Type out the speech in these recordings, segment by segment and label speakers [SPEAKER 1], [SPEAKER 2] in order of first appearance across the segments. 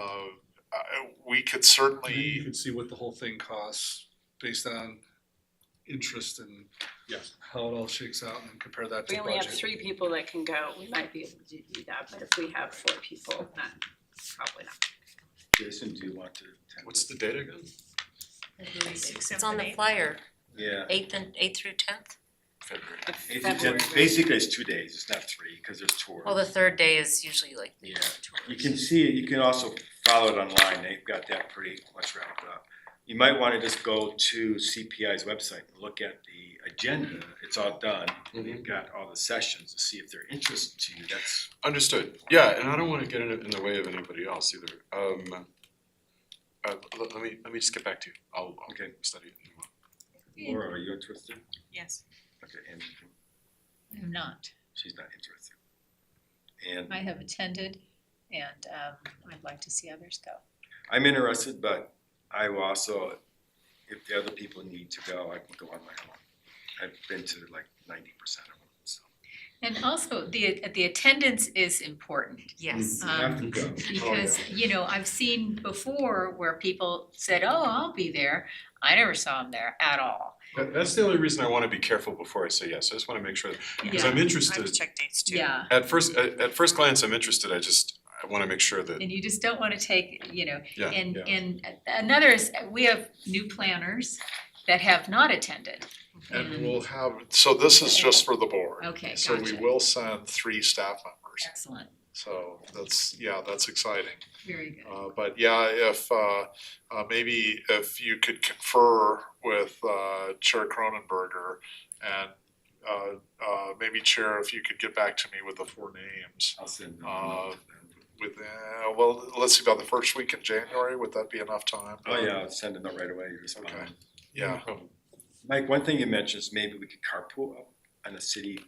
[SPEAKER 1] Uh,
[SPEAKER 2] we
[SPEAKER 3] And
[SPEAKER 2] could
[SPEAKER 3] then you
[SPEAKER 2] certainly,
[SPEAKER 3] can see what the whole thing costs based on interest and
[SPEAKER 4] Yes.
[SPEAKER 3] how it all shakes out and then compare that to
[SPEAKER 5] We
[SPEAKER 3] the
[SPEAKER 5] only have
[SPEAKER 3] budget.
[SPEAKER 5] three people that can go, we might be able to do that, but if we have four people, then probably not.
[SPEAKER 4] Jason, do you want to? attend
[SPEAKER 2] what's
[SPEAKER 4] this?
[SPEAKER 2] the date again?
[SPEAKER 6] Mm-hmm. It's on the flyer,
[SPEAKER 4] Yeah.
[SPEAKER 6] eighth and, eighth through tenth.
[SPEAKER 2] February.
[SPEAKER 4] Eight to ten-
[SPEAKER 5] February.
[SPEAKER 4] Basically, it's two days, it's not three, because there's tours.
[SPEAKER 6] Well, the third day is usually like
[SPEAKER 4] Yeah, you
[SPEAKER 6] tours.
[SPEAKER 4] can see it, you can also follow it online, they've got that pretty much wrapped up. You might wanna just go to CPI's website and look at the agenda, it's all done.
[SPEAKER 1] Mm-hmm.
[SPEAKER 4] They've got all the sessions to see if they're interested to you, that's,
[SPEAKER 1] Understood, yeah, and I don't wanna get in, in the way of anybody else either, um, uh, let, let me, let me just get back to you, I'll, I'll
[SPEAKER 4] Okay.
[SPEAKER 1] study it.
[SPEAKER 4] Laura, are you interested?
[SPEAKER 7] Yes,
[SPEAKER 4] Okay, and
[SPEAKER 7] I'm not.
[SPEAKER 4] she's not interested. And
[SPEAKER 7] I have attended and um I'd like to see others go.
[SPEAKER 4] I'm interested, but I will also, if the other people need to go, I can go on my own. I've been to like ninety percent of them, so.
[SPEAKER 7] And also the the attendance is important
[SPEAKER 6] Yes.
[SPEAKER 4] You have to
[SPEAKER 7] Um,
[SPEAKER 4] go.
[SPEAKER 7] because, you know, I've seen before where people said, "Oh, I'll be there." I never saw them there at all.
[SPEAKER 1] That, that's the only reason I wanna be careful before I say yes, I just wanna make sure, cause
[SPEAKER 7] Yeah.
[SPEAKER 1] I'm interested,
[SPEAKER 6] Um, check dates
[SPEAKER 7] Yeah.
[SPEAKER 1] at first, at, at first glance, I'm interested, I just, I wanna make sure that,
[SPEAKER 7] And you just don't wanna take, you know,
[SPEAKER 1] Yeah,
[SPEAKER 7] and
[SPEAKER 1] yeah.
[SPEAKER 7] and another is, we have new planners that have not attended.
[SPEAKER 2] And
[SPEAKER 7] And-
[SPEAKER 2] we'll have, so this is just for the board.
[SPEAKER 7] Okay,
[SPEAKER 2] So we
[SPEAKER 7] gotcha.
[SPEAKER 2] will send three staff members,
[SPEAKER 7] Excellent,
[SPEAKER 2] so that's, yeah, that's exciting.
[SPEAKER 7] very good.
[SPEAKER 2] Uh, but yeah, if, uh, uh, maybe if you could confer with, uh, Chair Cronenberger and, uh, uh, maybe Chair, if you could get back to me with the four names
[SPEAKER 4] I'll send them.
[SPEAKER 2] Uh, within, uh, well, let's see, about the first week in January, would that be enough time?
[SPEAKER 4] Oh, yeah, I'll send them out right away, you respond.
[SPEAKER 2] Okay. Yeah,
[SPEAKER 4] Mike, one thing you mentioned is maybe we could carpool up on a city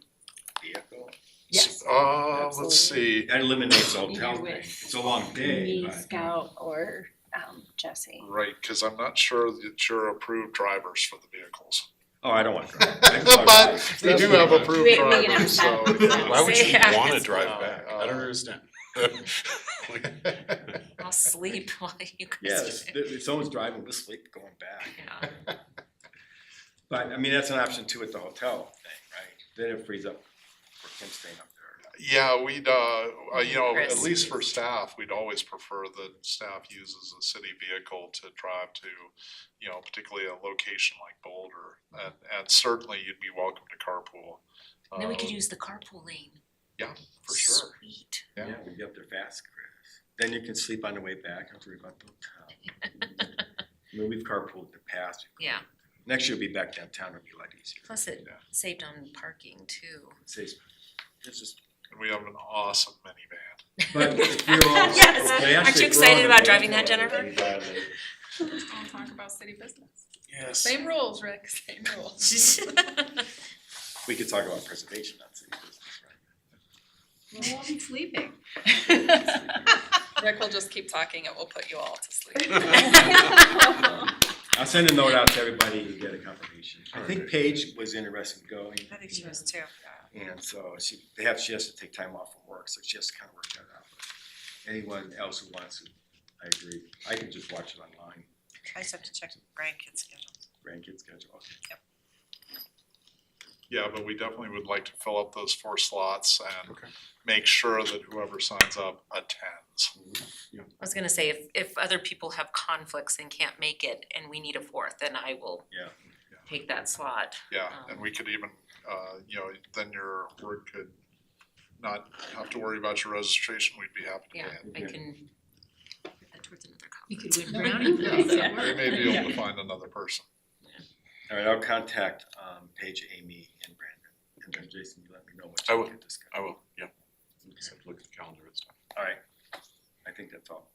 [SPEAKER 4] vehicle.
[SPEAKER 5] Yes.
[SPEAKER 2] uh, let's see,
[SPEAKER 4] That eliminates the hotel
[SPEAKER 5] Either way.
[SPEAKER 4] thing, it's a long day,
[SPEAKER 5] Me,
[SPEAKER 4] but.
[SPEAKER 5] Scout, or, um, Jesse.
[SPEAKER 2] right, cause I'm not sure that you're approved drivers for the vehicles.
[SPEAKER 4] Oh, I don't want to drive. I can talk about
[SPEAKER 2] But
[SPEAKER 4] it.
[SPEAKER 2] they do have approved
[SPEAKER 5] We- we can
[SPEAKER 2] drivers, so.
[SPEAKER 5] have
[SPEAKER 2] yeah.
[SPEAKER 1] why would you
[SPEAKER 6] Yeah.
[SPEAKER 1] wanna drive back, I don't
[SPEAKER 2] Uh,
[SPEAKER 1] understand. Like,
[SPEAKER 6] I'll sleep while you guys
[SPEAKER 4] Yes,
[SPEAKER 6] do it.
[SPEAKER 4] if if someone's driving, we'll sleep going back.
[SPEAKER 6] Yeah.
[SPEAKER 4] But, I mean, that's an option too with the hotel thing, right? Then it frees up for him staying up there.
[SPEAKER 2] Yeah, we'd, uh, uh, you know, at
[SPEAKER 6] Chris.
[SPEAKER 2] least for staff, we'd always prefer that staff uses a city vehicle to drive to, you know, particularly a location like Boulder. And, and certainly you'd be welcome to carpool.
[SPEAKER 6] And Then we could
[SPEAKER 2] uh,
[SPEAKER 6] use the carpool lane.
[SPEAKER 2] For sure.
[SPEAKER 6] Sweet.
[SPEAKER 2] Yeah.
[SPEAKER 4] Yeah, we get up there fast, Chris. Then you can sleep on the way back, have to worry about the hotel. I mean, we've carpooled in the past.
[SPEAKER 6] Yeah,
[SPEAKER 4] Next year we'll be back downtown, it'll be a lot easier.
[SPEAKER 6] plus it
[SPEAKER 2] Yeah.
[SPEAKER 6] saved on parking too.
[SPEAKER 4] Saves- It's just,
[SPEAKER 2] And we have an awesome minivan.
[SPEAKER 4] but if we were all.
[SPEAKER 6] Yes.
[SPEAKER 4] if we
[SPEAKER 6] Aren't
[SPEAKER 4] actually
[SPEAKER 6] you excited
[SPEAKER 4] were on a
[SPEAKER 6] about driving
[SPEAKER 4] vehicle,
[SPEAKER 6] that,
[SPEAKER 4] it'd be better than-
[SPEAKER 8] Let's go and talk about city business.
[SPEAKER 2] Yes.
[SPEAKER 8] Same rules, Rick, same rules.
[SPEAKER 4] We could talk about preservation, not city business, right?
[SPEAKER 7] Well, I'm sleeping.
[SPEAKER 8] Rick will just keep talking, it will put you all to sleep.
[SPEAKER 4] I'll send a note out to everybody and get a confirmation. I think
[SPEAKER 1] Alright.
[SPEAKER 4] Paige was interested in going,
[SPEAKER 6] I think
[SPEAKER 7] she was
[SPEAKER 6] too.
[SPEAKER 4] and so she, they have, she has to take time off from work, so she has to kind of work that out. But Anyone else who wants to, I agree, I can just watch it online,
[SPEAKER 6] I just have to check grandkids schedule.
[SPEAKER 4] grandkids schedule, okay.
[SPEAKER 2] Yeah, but we definitely would like to fill up those four slots and
[SPEAKER 1] Okay.
[SPEAKER 2] make sure that whoever signs up attends.
[SPEAKER 6] I was gonna say, if, if other people have conflicts and can't make it and we need a fourth, then I will
[SPEAKER 4] Yeah.
[SPEAKER 6] take that slot.
[SPEAKER 2] Yeah, and we could even, uh, you know, then your work could not have to worry about your registration. We'd be happy to
[SPEAKER 6] Yeah,
[SPEAKER 2] pay it.
[SPEAKER 6] I
[SPEAKER 4] Okay.
[SPEAKER 6] can put that towards another
[SPEAKER 7] You
[SPEAKER 6] conference.
[SPEAKER 7] could win brownie points at
[SPEAKER 2] We
[SPEAKER 7] work.
[SPEAKER 2] may be able to find another person.
[SPEAKER 4] All right, I'll contact, um, Paige, Amy, and Brandon, and then Jason, you let me know what
[SPEAKER 1] I
[SPEAKER 4] you
[SPEAKER 1] will.
[SPEAKER 4] can discuss.
[SPEAKER 1] I will, yeah, just have to look at the calendar and stuff.
[SPEAKER 4] All right, I think that's all.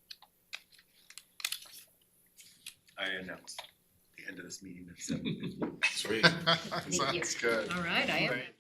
[SPEAKER 4] I announce the end of this meeting at seven.
[SPEAKER 1] Sweet.
[SPEAKER 2] Sounds good.
[SPEAKER 7] All right, I am.
[SPEAKER 2] Thank